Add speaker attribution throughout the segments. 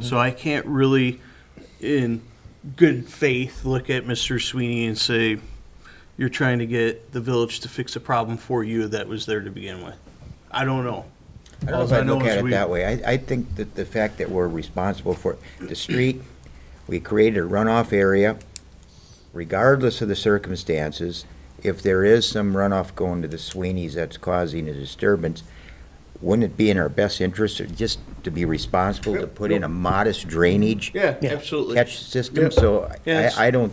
Speaker 1: So I can't really, in good faith, look at Mr. Sweeney and say, you're trying to get the village to fix a problem for you that was there to begin with. I don't know.
Speaker 2: I don't know if I look at it that way. I, I think that the fact that we're responsible for the street, we created a runoff area, regardless of the circumstances, if there is some runoff going to the Sweeney's that's causing a disturbance, wouldn't it be in our best interest or just to be responsible to put in a modest drainage
Speaker 1: Yeah, absolutely.
Speaker 2: catch system?
Speaker 1: Yep.
Speaker 2: So I,
Speaker 1: Yes.
Speaker 2: I don't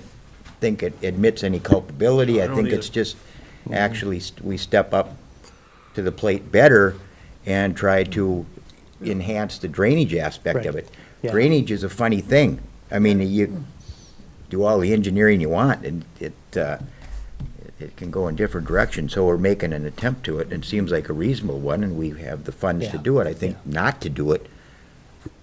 Speaker 2: think it admits any culpability.
Speaker 1: I
Speaker 2: I
Speaker 1: don't
Speaker 2: think it's
Speaker 1: either.
Speaker 2: just,
Speaker 3: Mm-hmm.
Speaker 2: actually, st- we step up to the plate better and try to enhance the drainage aspect of
Speaker 3: Right.
Speaker 2: it.
Speaker 3: Yeah. Mm.
Speaker 2: Drainage is a funny thing. I mean, you do all the engineering you want, and it, uh, it can go in different directions, so we're making an attempt to it, and it seems like a reasonable one, and we have the funds to
Speaker 3: Yeah.
Speaker 2: do it. I think not to do it,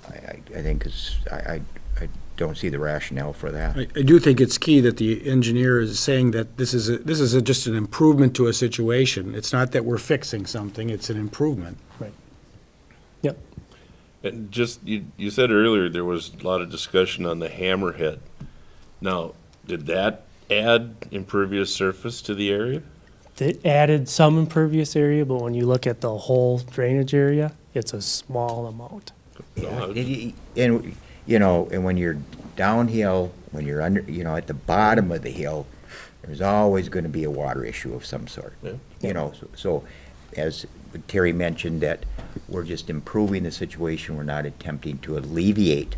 Speaker 2: I, I I think is, I, I, I don't see the rationale for that.
Speaker 4: I, I do think it's key that the engineer is saying that this is, a- this is a- just an improvement to a situation. It's not that we're fixing something, it's an improvement.
Speaker 3: Right. Yep.
Speaker 5: And just, you, you said earlier there was a lot of discussion on the hammerhead. Now, did that add impervious surface to the area?
Speaker 3: It added some impervious area, but when you look at the whole drainage area, it's a small amount.
Speaker 5: No,
Speaker 2: And, y- and, you know, and when you're downhill, when you're under, you know, at the bottom of the hill, there's always gonna be a water issue of some sort.
Speaker 5: Yeah.
Speaker 2: You know, so- so, as Terry mentioned, that we're just improving the situation, we're not attempting to alleviate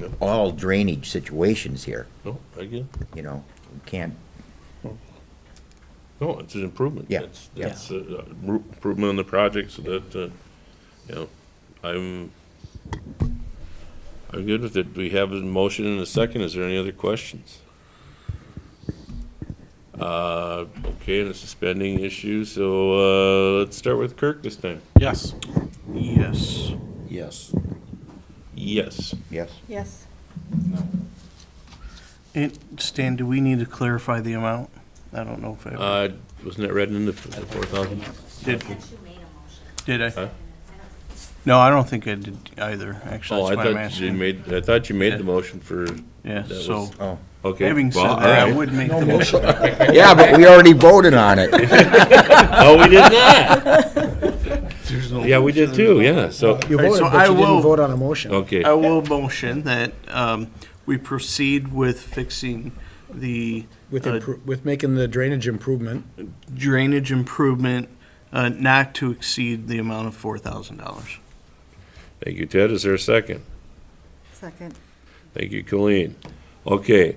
Speaker 5: Yeah.
Speaker 2: all drainage situations here,
Speaker 5: No, I get, it.
Speaker 2: you know, we can't,
Speaker 5: no, it's an improvement.
Speaker 2: Yeah,
Speaker 5: It's,
Speaker 2: yeah.
Speaker 5: it's a- a roo- improvement on the project, so that, uh, you know, I'm, I'm good with it. We have a motion and a second. Is there any other questions? Uh, okay, and it's a spending issue, so, uh, let's start with Kirk this time.
Speaker 4: Yes.
Speaker 1: Yes.
Speaker 6: Yes.
Speaker 5: Yes.
Speaker 2: yes,
Speaker 7: Yes.
Speaker 1: And Stan, do we need to clarify the amount? I don't know if I,
Speaker 5: Uh, wasn't that read in the four thousand?
Speaker 1: did,
Speaker 7: you made a
Speaker 1: did
Speaker 5: Huh?
Speaker 1: I? No, I don't think I did either, actually.
Speaker 5: Oh, I
Speaker 1: That's why I'm
Speaker 5: thought you
Speaker 1: asking.
Speaker 5: made, I thought you made
Speaker 1: Yeah.
Speaker 5: the motion for,
Speaker 1: Yeah,
Speaker 5: that
Speaker 1: so,
Speaker 5: was-
Speaker 2: oh.
Speaker 5: okay.
Speaker 1: having said
Speaker 5: well,
Speaker 1: that, I
Speaker 5: alright.
Speaker 1: would make the motion.
Speaker 2: Yeah, but we already voted on it.
Speaker 5: Oh, we did not. Yeah, we did too, yeah, so,
Speaker 4: You
Speaker 1: All right,
Speaker 4: voted,
Speaker 1: so
Speaker 4: but
Speaker 1: I
Speaker 4: you
Speaker 1: will-
Speaker 4: didn't vote on a motion.
Speaker 5: okay.
Speaker 1: I will motion that um, we proceed with fixing the
Speaker 4: With,
Speaker 1: uh,
Speaker 4: impro- with making the drainage improvement.
Speaker 1: drainage improvement uh, not to exceed the amount of $4,000.
Speaker 5: Thank you, Ted. Is there a second?
Speaker 7: Second.
Speaker 5: Thank you, Colleen. Okay,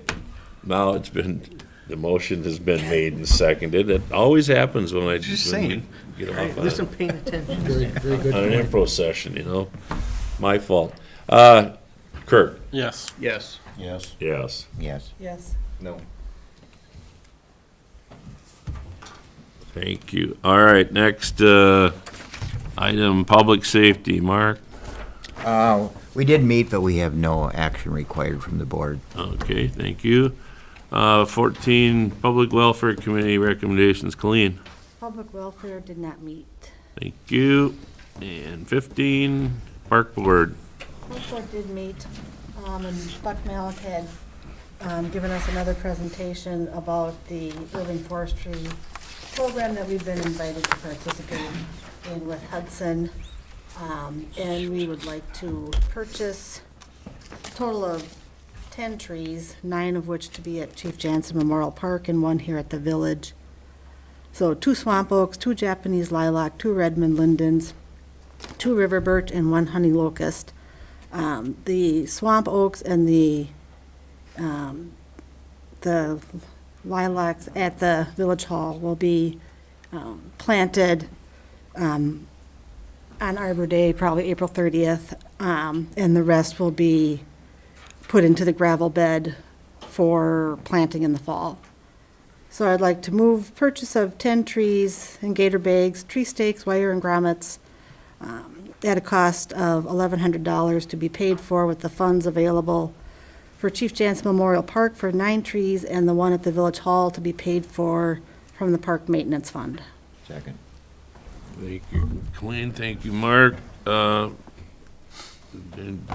Speaker 5: now it's been, the motion has been made and seconded. It always happens when I.
Speaker 1: Just
Speaker 5: when we
Speaker 1: saying.
Speaker 5: Get
Speaker 1: Right,
Speaker 5: off on.
Speaker 1: Listen, paying attention.
Speaker 4: Very, very good.
Speaker 5: on an info session, you know? My fault. Uh, Kirk?
Speaker 6: Yes.
Speaker 1: Yes.
Speaker 6: Yes.
Speaker 5: Yes.
Speaker 2: Yes,
Speaker 7: Yes.
Speaker 6: No.
Speaker 5: Thank you. All right, next, uh, item, public safety, Mark.
Speaker 2: uh, we did meet, but we have no action required from the board.
Speaker 5: Okay, thank you. Uh, fourteen, Public Welfare Committee recommendations, Colleen.
Speaker 7: Public welfare did not meet.
Speaker 5: Thank you. And fifteen, Park Board.
Speaker 7: Health board did meet, um, and Buck Malik had, um, given us another presentation about the urban forestry program that we've been invited to participate in with Hudson. Um, and we would like to purchase a total of ten trees, nine of which to be at Chief Jansen Memorial Park and one here at the village. So two swamp oaks, two Japanese lilac, two Redmond lindens, two river birch, and one honey locust um, the swamp oaks and the, um, the lilacs at the village hall will be, um, planted, um, on Arbor Day, probably April thirtieth, um, and the rest will be put into the gravel bed for planting in the fall. So I'd like to move purchase of ten trees and gator bags, tree stakes, wire and grommets, um, at a cost of $1,100 to be paid for with the funds available for Chief Jansen Memorial Park for nine trees and the one at the Village Hall to be paid for from the Park Maintenance Fund.
Speaker 2: Second.
Speaker 5: Thank you, Colleen. Thank you, Mark. Uh, and